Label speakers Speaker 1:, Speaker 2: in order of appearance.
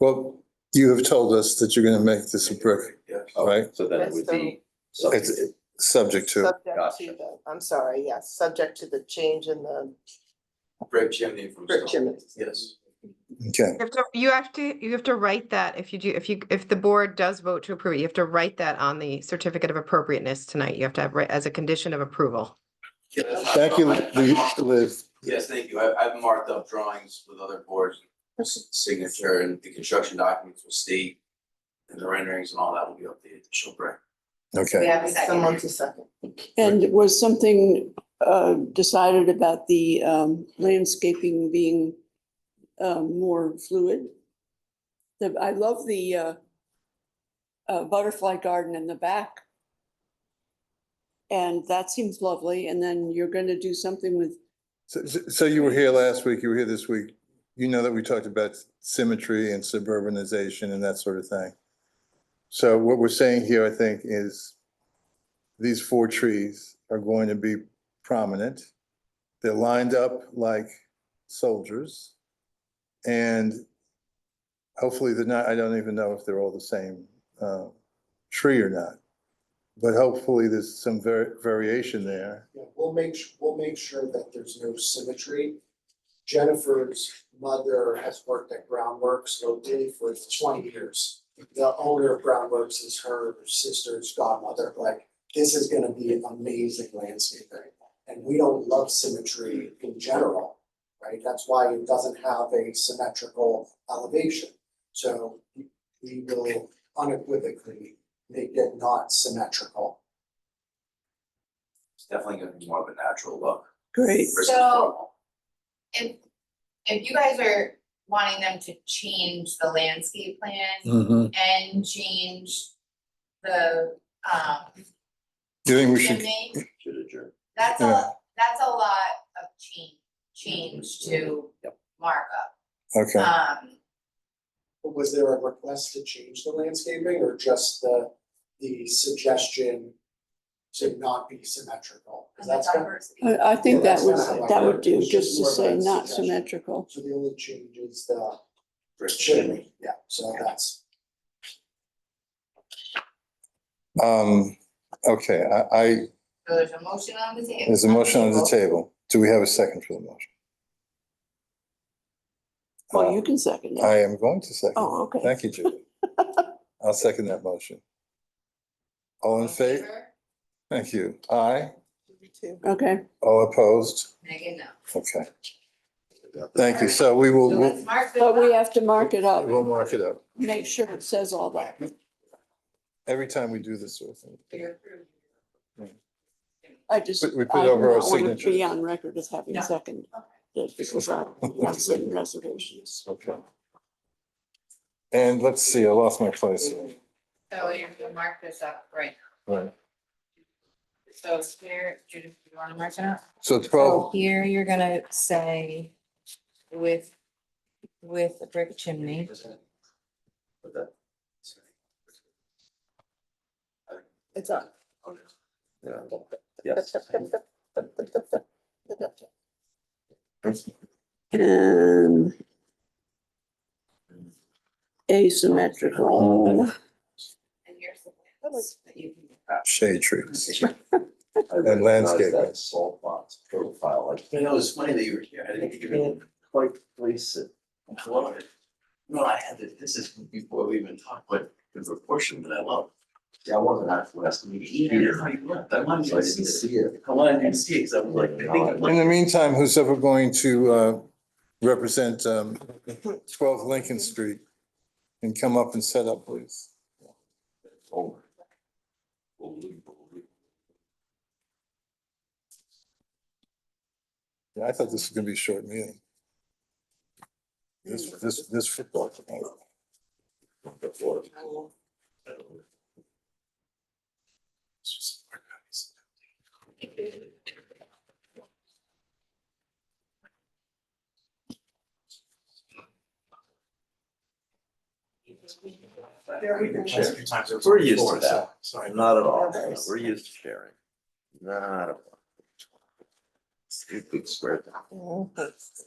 Speaker 1: Well, you have told us that you're gonna make this a brick,
Speaker 2: Yes.
Speaker 1: right?
Speaker 3: So then it would be.
Speaker 1: It's it's subject to,
Speaker 4: Subject
Speaker 3: Gotcha.
Speaker 4: to the, I'm sorry, yes, subject to the change in the
Speaker 2: Brick chimney from.
Speaker 4: brick
Speaker 2: stone.
Speaker 4: chimney.
Speaker 2: Yes.
Speaker 1: okay,
Speaker 5: You have to, you have to, you have to write that if you do, if you, if the board does vote to approve, it, you have to write that on the certificate of appropriateness tonight. You have to have, ri- as a condition of approval.
Speaker 1: thank you, Li- Liz.
Speaker 2: Yes, thank you. I, I've marked up drawings with other boards, signature and the construction documents will state. And the renderings and all that will be updated to show brick.
Speaker 1: Okay,
Speaker 4: Yeah, someone to second.
Speaker 6: And was something uh, decided about the um, landscaping being um, more fluid? The, I love the uh, uh, butterfly garden in the back. And that seems lovely. And then you're going to do something with,
Speaker 1: so, so- so you were here last week, you were here this week. You know that we talked about symmetry and suburbanization and that sort of thing. So what we're saying here, I think, is these four trees are going to be prominent. They're lined up like soldiers. And hopefully they're not, I don't even know if they're all the same uh, tree or not. But hopefully there's some var- variation there.
Speaker 7: Yeah, we'll make, su- we'll make sure that there's no symmetry. Jennifer's mother has worked at Groundworks locally for twenty years. The owner of Groundworks is her sister's godmother, like, this is gonna be amazing landscaping. And we don't love symmetry in general, right? That's why it doesn't have a symmetrical elevation. So we will unequivocally make it not symmetrical.
Speaker 2: It's definitely gonna be more of a natural look.
Speaker 6: great,
Speaker 2: versus
Speaker 8: So-
Speaker 2: formal.
Speaker 8: If, if you guys are wanting them to change the landscape plan
Speaker 1: Mm-hmm.
Speaker 8: and change the, um,
Speaker 1: Do you think we should
Speaker 8: chimney,
Speaker 3: Should adjourn.
Speaker 8: that's
Speaker 1: Yeah. Mm-hmm.
Speaker 8: a, that's a lot of change, change to markup.
Speaker 1: Okay,
Speaker 8: Um,
Speaker 7: Was there a request to change the landscaping or just the, the suggestion to not be symmetrical? 'Cause
Speaker 8: and
Speaker 7: that's
Speaker 8: the
Speaker 7: kind of-
Speaker 8: diversity.
Speaker 6: I I think that
Speaker 7: Well,
Speaker 6: would,
Speaker 7: that's not-
Speaker 6: that would do,
Speaker 7: it's
Speaker 6: just to
Speaker 7: more of
Speaker 6: say
Speaker 7: a
Speaker 6: not
Speaker 7: suggestion.
Speaker 6: symmetrical.
Speaker 7: So the only change is the
Speaker 2: Brick chimney.
Speaker 7: chimney, yeah, so that's,
Speaker 1: um, okay, I, I,
Speaker 8: So there's a motion on the table.
Speaker 1: there's a motion on the table. Do we have a second for the motion?
Speaker 6: Well, Oh, you can second it.
Speaker 1: Uh, I am going to second.
Speaker 6: Oh, okay.
Speaker 1: Thank you, Julie. I'll second that motion. All in favor? Thank you. Aye.
Speaker 6: Okay,
Speaker 1: All opposed?
Speaker 8: Megan, no.
Speaker 1: Okay. Thank you. So we will,
Speaker 8: So
Speaker 1: we'll
Speaker 8: let's mark this
Speaker 6: but we
Speaker 8: up.
Speaker 6: have to mark it up,
Speaker 1: we'll mark it up.
Speaker 6: make sure it says all that.
Speaker 1: Every time we do this sort of thing.
Speaker 8: You're approved.
Speaker 6: I just.
Speaker 1: We- we put
Speaker 6: I do
Speaker 1: over our
Speaker 6: not want it to Be
Speaker 1: signatures.
Speaker 6: on record as having
Speaker 8: No.
Speaker 6: second, that because I have certain reservations.
Speaker 1: Okay. And let's see, I lost my place. here.
Speaker 8: So you're gonna mark this up, right?
Speaker 1: Right.
Speaker 8: So here, Judith, you wanna mark it up?
Speaker 1: So
Speaker 8: So
Speaker 1: twelve,
Speaker 8: here, you're gonna say with, with a brick chimney.
Speaker 2: But that-
Speaker 4: It's on.
Speaker 3: Yeah. Yes.
Speaker 6: And asymmetrical,
Speaker 8: And here's the plans that you can-
Speaker 1: shade trees.
Speaker 3: I recognized
Speaker 1: landscape.
Speaker 3: That salt box profile, like,
Speaker 2: You know, it's funny that you were here. I didn't think you were.
Speaker 3: can't quite place it.
Speaker 2: I love it. No, I had it. This is before we even talked, but the proportion that I love. Yeah, I wasn't at the last meeting either. I left. I wanted
Speaker 3: So I
Speaker 2: to
Speaker 3: didn't
Speaker 2: see it.
Speaker 3: see it.
Speaker 2: I wanted to see it because I was like, I think. I'm
Speaker 1: In
Speaker 2: like-
Speaker 1: the meantime, who's ever going to uh, represent um, 12 Lincoln Street can come up and set up, please?
Speaker 3: Over. Unbelievable.
Speaker 1: Yeah, I thought this was going to be a short meeting. This, this, this football. tonight.
Speaker 3: Before.
Speaker 2: We can share a few times.
Speaker 3: We're used to that.
Speaker 2: Sorry.
Speaker 3: Not at all.
Speaker 4: Yeah.
Speaker 3: We're used to sharing.
Speaker 4: Mm-hmm.
Speaker 3: Not at all. Stupid square. thing.